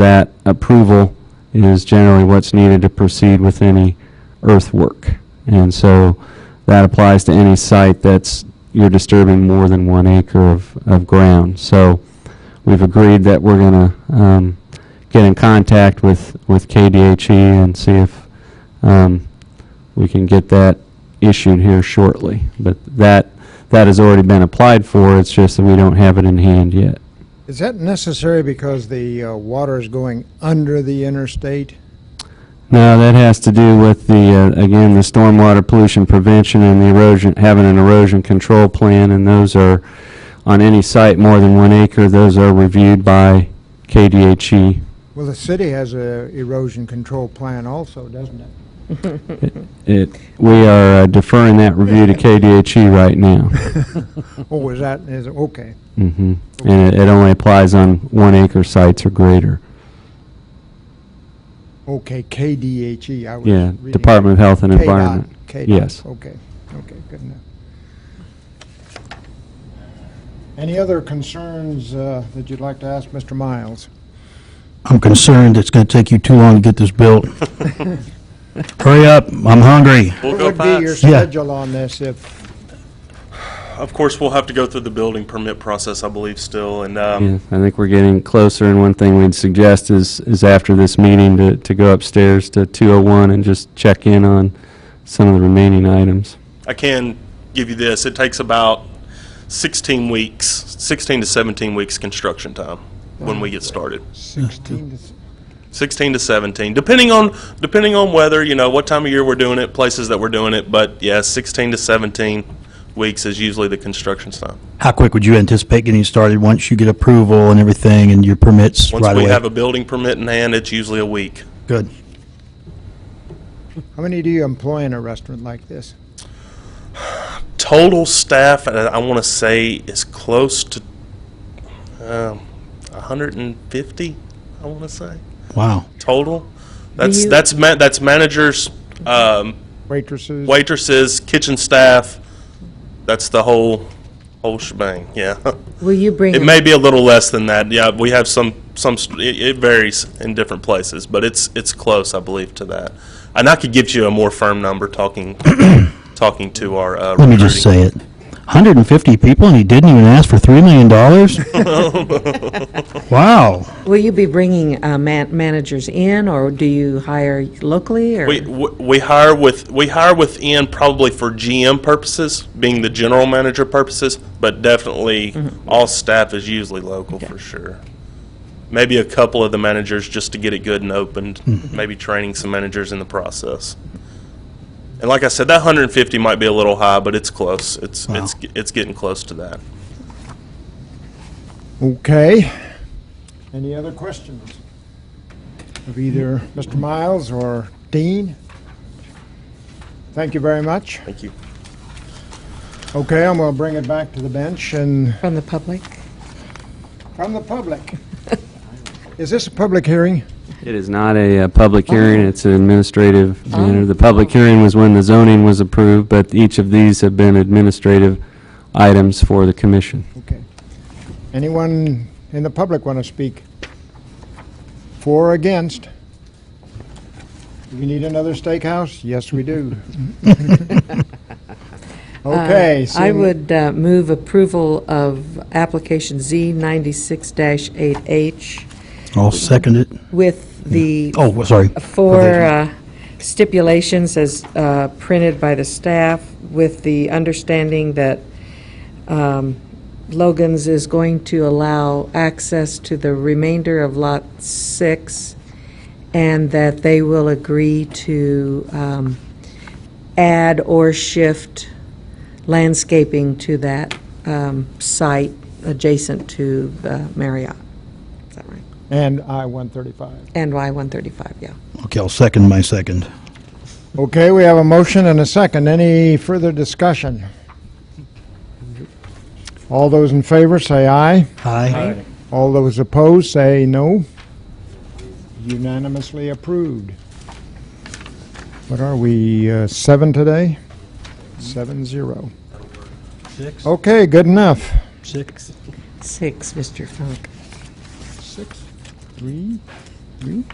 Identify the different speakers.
Speaker 1: that approval is generally what's needed to proceed with any earthwork. And so that applies to any site that's, you're disturbing more than one acre of, of ground. So we've agreed that we're going to get in contact with, with KDHE E and see if um, we can get that issued here shortly. But that, that has already been applied for, it's just that we don't have it in hand yet.
Speaker 2: Is that necessary because the uh, water is going under the interstate?
Speaker 1: No, that has to do with the, uh, again, the stormwater pollution prevention and the erosion, having an erosion control plan, and those are, on any site more than one acre, those are reviewed by KDHE.
Speaker 2: Well, the city has a erosion control plan also, doesn't it?
Speaker 1: It, we are uh, deferring that review to KDHE E right now.
Speaker 2: Oh, was that, is, it- okay.
Speaker 1: Mhm. And it- it only applies on one acre sites or greater.
Speaker 2: Okay, KDHE, E, I was
Speaker 1: Yeah,
Speaker 2: reading.
Speaker 1: Department of Health and
Speaker 2: KDOT,
Speaker 1: Environment.
Speaker 2: KDOT,
Speaker 1: Yes.
Speaker 2: Okay, okay, good enough. Any other concerns uh, that you'd like to ask Mr. Miles?
Speaker 3: I'm concerned it's going to take you too long to get this built. Hurry up, I'm hungry.
Speaker 4: We'll
Speaker 2: What
Speaker 4: go
Speaker 2: would be your
Speaker 4: fast.
Speaker 3: Yeah.
Speaker 2: schedule on this if,
Speaker 4: Of course, we'll have to go through the building permit process, I believe, still, and,
Speaker 1: Yeah,
Speaker 4: um,
Speaker 1: I think we're getting closer, and one thing we'd suggest is, is after this meeting to, to go upstairs to 201 and just check in on some of the remaining items.
Speaker 4: I can give you this, it takes about 16 weeks, 16 to 17 weeks construction time when we get started.
Speaker 2: 16 to
Speaker 4: 16 to 17, depending on, depending on weather, you know, what time of year we're doing it, places that we're doing it, but yeah, 16 to 17 weeks is usually the construction time.
Speaker 3: How quick would you anticipate getting started once you get approval and everything and your permits right
Speaker 4: Once
Speaker 3: away?
Speaker 4: we have a building permit in hand, it's usually a week.
Speaker 3: Good.
Speaker 2: How many do you employ in a restaurant like this?
Speaker 4: total staff, and I want to say is close to um, 150. I want to say
Speaker 3: Wow.
Speaker 4: total. That's
Speaker 5: you-
Speaker 4: that's ma- that's managers, um,
Speaker 2: Waitresses?
Speaker 4: waitresses, kitchen staff. That's the whole whole shebang. Yeah,
Speaker 5: Will you bring,
Speaker 4: it
Speaker 5: a-
Speaker 4: may be a little less than that. Yeah, we have some some. st- It, it varies in different places, but it's it's close, I believe, to that. And I could give you a more firm number talking talking to our. Uh,
Speaker 3: Let me just say it. 150 people and you didn't even ask for $3 million? Wow.
Speaker 5: will you be bringing uh, man- managers in, or do you hire locally, or?
Speaker 4: We, we we hire with, we hire within probably for GM purposes, being the general manager purposes, but definitely all staff is usually local for sure. Maybe a couple of the managers just to get it good and opened, maybe training some managers in the process. And like I said, that 150 might be a little high, but it's close. It's, it's, it's getting close to that.
Speaker 2: Okay. Any other questions of either Mr. Miles or Dean? Thank you very much.
Speaker 4: Thank you.
Speaker 2: Okay, I'm going to bring it back to the bench and
Speaker 5: From the public?
Speaker 2: from the public. Is this a public hearing?
Speaker 1: It is not a uh, public hearing, it's an administrative matter. The public hearing was when the zoning was approved, but each of these have been administrative items for the commission.
Speaker 2: Okay. Anyone in the public want to speak? For or against? Do we need another steakhouse? Yes, we do. Okay.
Speaker 5: Uh, I
Speaker 2: seeing-
Speaker 5: would uh, move approval of application Z ninety-six eight H
Speaker 3: I'll second it.
Speaker 5: with the
Speaker 3: Oh, sorry.
Speaker 5: four uh, stipulations as uh, printed by the staff, with the understanding that um, Logan's is going to allow access to the remainder of Lot 6, and that they will agree to um, add or shift landscaping to that um, site adjacent to the Marriott. Is that right?
Speaker 2: And I-135.
Speaker 5: And Y-135, yeah.
Speaker 3: Okay, I'll second my second.
Speaker 2: Okay, we have a motion and a second. Any further discussion? All those in favor, say aye.
Speaker 3: Aye.
Speaker 2: All those opposed, say no. Unanimously approved. What are we, uh, seven today? Seven zero.
Speaker 3: Six.
Speaker 2: Okay, good enough.
Speaker 3: Six.
Speaker 5: Six, Mr. Funk.
Speaker 2: Six, three,